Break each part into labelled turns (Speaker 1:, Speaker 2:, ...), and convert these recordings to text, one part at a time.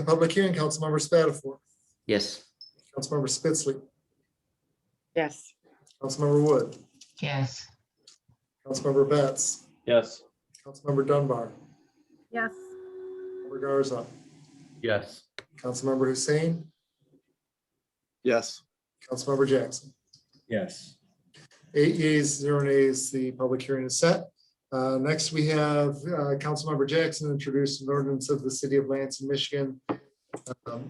Speaker 1: The public hearing, Councilmember Spatafor,
Speaker 2: Yes.
Speaker 1: Councilmember Spitzley,
Speaker 3: Yes.
Speaker 1: Councilmember Wood,
Speaker 4: yes,
Speaker 1: Councilmember Betts,
Speaker 5: Yes.
Speaker 1: Councilmember Dunbar,
Speaker 3: Yes.
Speaker 1: Councilmember Garza,
Speaker 5: Yes.
Speaker 1: Councilmember Hussein,
Speaker 6: yes,
Speaker 1: Councilmember Jackson.
Speaker 5: Yes.
Speaker 1: Eight yeas, zero nays, the public hearing is set. Uh, Next, we have uh, Councilmember Jackson introduced an ordinance of the city of Lansing, Michigan um,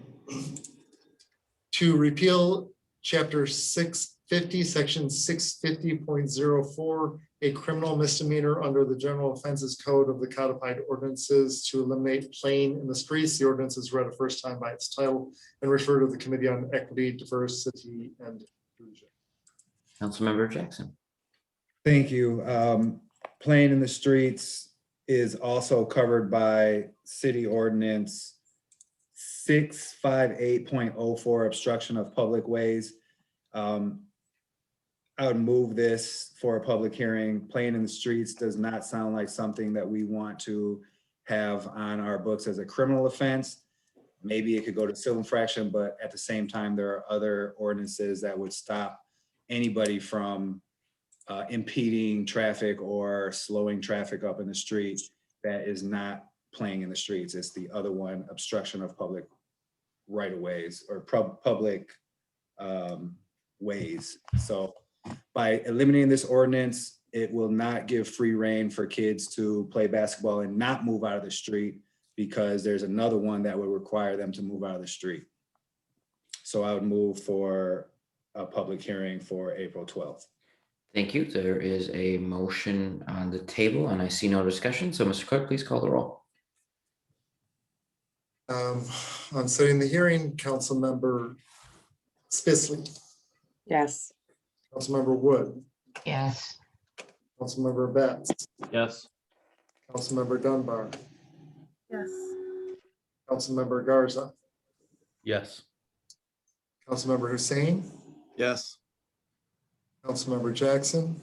Speaker 1: to repeal chapter six fifty, section six fifty point zero four, a criminal misdemeanor under the general offenses code of the codified ordinances to eliminate playing in the streets. The ordinance is read a first time by its title and referred to the Committee on Equity, Diversity, and Inclusion.
Speaker 2: Councilmember Jackson.
Speaker 7: Thank you. Um, Playing in the streets is also covered by city ordinance six five eight point oh four obstruction of public ways. Um, I would move this for a public hearing. Playing in the streets does not sound like something that we want to have on our books as a criminal offense. Maybe it could go to civil infraction, but at the same time, there are other ordinances that would stop anybody from uh, impeding traffic or slowing traffic up in the street that is not playing in the streets. It's the other one, obstruction of public right of ways or pub- public um, ways. So by eliminating this ordinance, it will not give free reign for kids to play basketball and not move out of the street because there's another one that would require them to move out of the street. So I would move for a public hearing for April 12th.
Speaker 2: Thank you. There is a motion on the table and I see no discussion. So Mr. Clerk, please call the roll.
Speaker 1: Um, on setting the hearing, Councilmember Spitzley,
Speaker 3: Yes.
Speaker 1: Councilmember Wood,
Speaker 4: yes,
Speaker 1: Councilmember Betts,
Speaker 5: Yes.
Speaker 1: Councilmember Dunbar,
Speaker 3: Yes.
Speaker 1: Councilmember Garza,
Speaker 5: Yes.
Speaker 1: Councilmember Hussein,
Speaker 6: yes,
Speaker 1: Councilmember Jackson,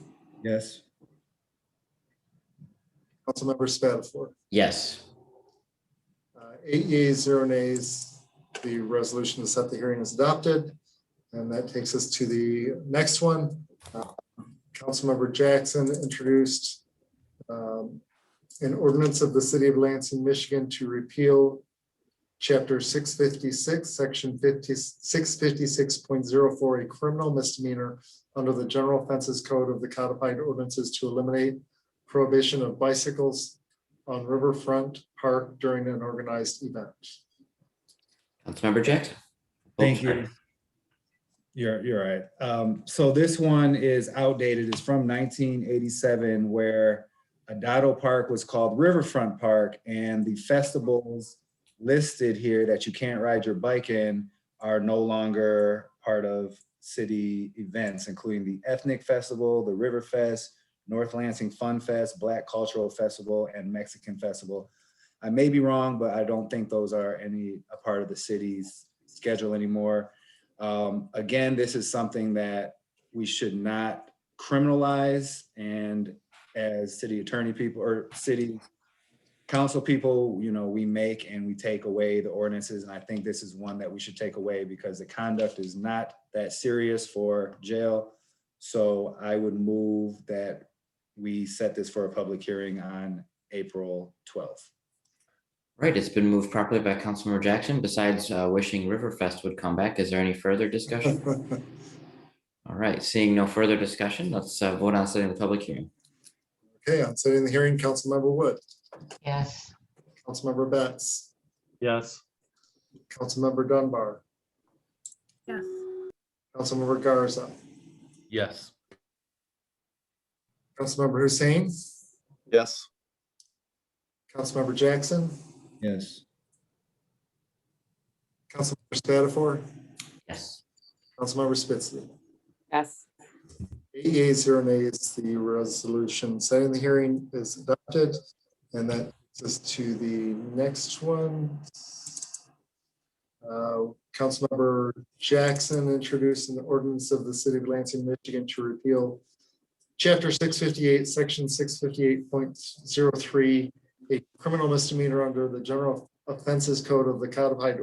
Speaker 7: Yes.
Speaker 1: Councilmember Spatafor.
Speaker 2: Yes.
Speaker 1: Uh, Eight yeas, zero nays. The resolution to set the hearing is adopted. And that takes us to the next one. Uh, Councilmember Jackson introduced um, an ordinance of the city of Lansing, Michigan to repeal chapter six fifty-six, section 50 656.04, a criminal misdemeanor under the general offenses code of the codified ordinances to eliminate prohibition of bicycles, on Riverfront Park during an organized event.
Speaker 2: Councilmember Jackson. Oh,
Speaker 7: Thank
Speaker 2: sorry.
Speaker 7: you. You're, you're right. Um, so this one is outdated. It's from nineteen eighty-seven where Adado Park was called Riverfront Park and the festivals listed here that you can't ride your bike in are no longer part of city events, including the Ethnic Festival, the River Fest, North Lansing Fun Fest, Black Cultural Festival, and Mexican Festival. I may be wrong, but I don't think those are any a part of the city's schedule anymore. Um, again, this is something that we should not criminalize. And as city attorney people or city council people, you know, we make and we take away the ordinances. And I think this is one that we should take away because the conduct is not that serious for jail. So I would move that we set this for a public hearing on April 12th.
Speaker 2: Right, it's been moved properly by Councilmember Jackson. Besides uh, wishing Riverfest would come back, is there any further discussion? All right, seeing no further discussion, let's uh, vote on setting the public hearing.
Speaker 1: Okay, on setting the hearing, Councilmember Wood,
Speaker 4: yes,
Speaker 1: Councilmember Betts,
Speaker 5: Yes.
Speaker 1: Councilmember Dunbar,
Speaker 3: Yes.
Speaker 1: Councilmember Garza,
Speaker 5: Yes.
Speaker 1: Councilmember Hussein,
Speaker 6: yes,
Speaker 1: Councilmember Jackson,
Speaker 7: Yes.
Speaker 1: Councilmember Spatafor,
Speaker 2: Yes.
Speaker 1: Councilmember Spitzley.
Speaker 3: Yes.
Speaker 1: Eight yeas, zero nays, the resolution setting the hearing is adopted. And that takes us to the next one. Uh, Councilmember Jackson introduced an ordinance of the city of Lansing, Michigan to repeal chapter six fifty-eight, section six fifty-eight point zero three, a criminal misdemeanor under the general offenses code of the codified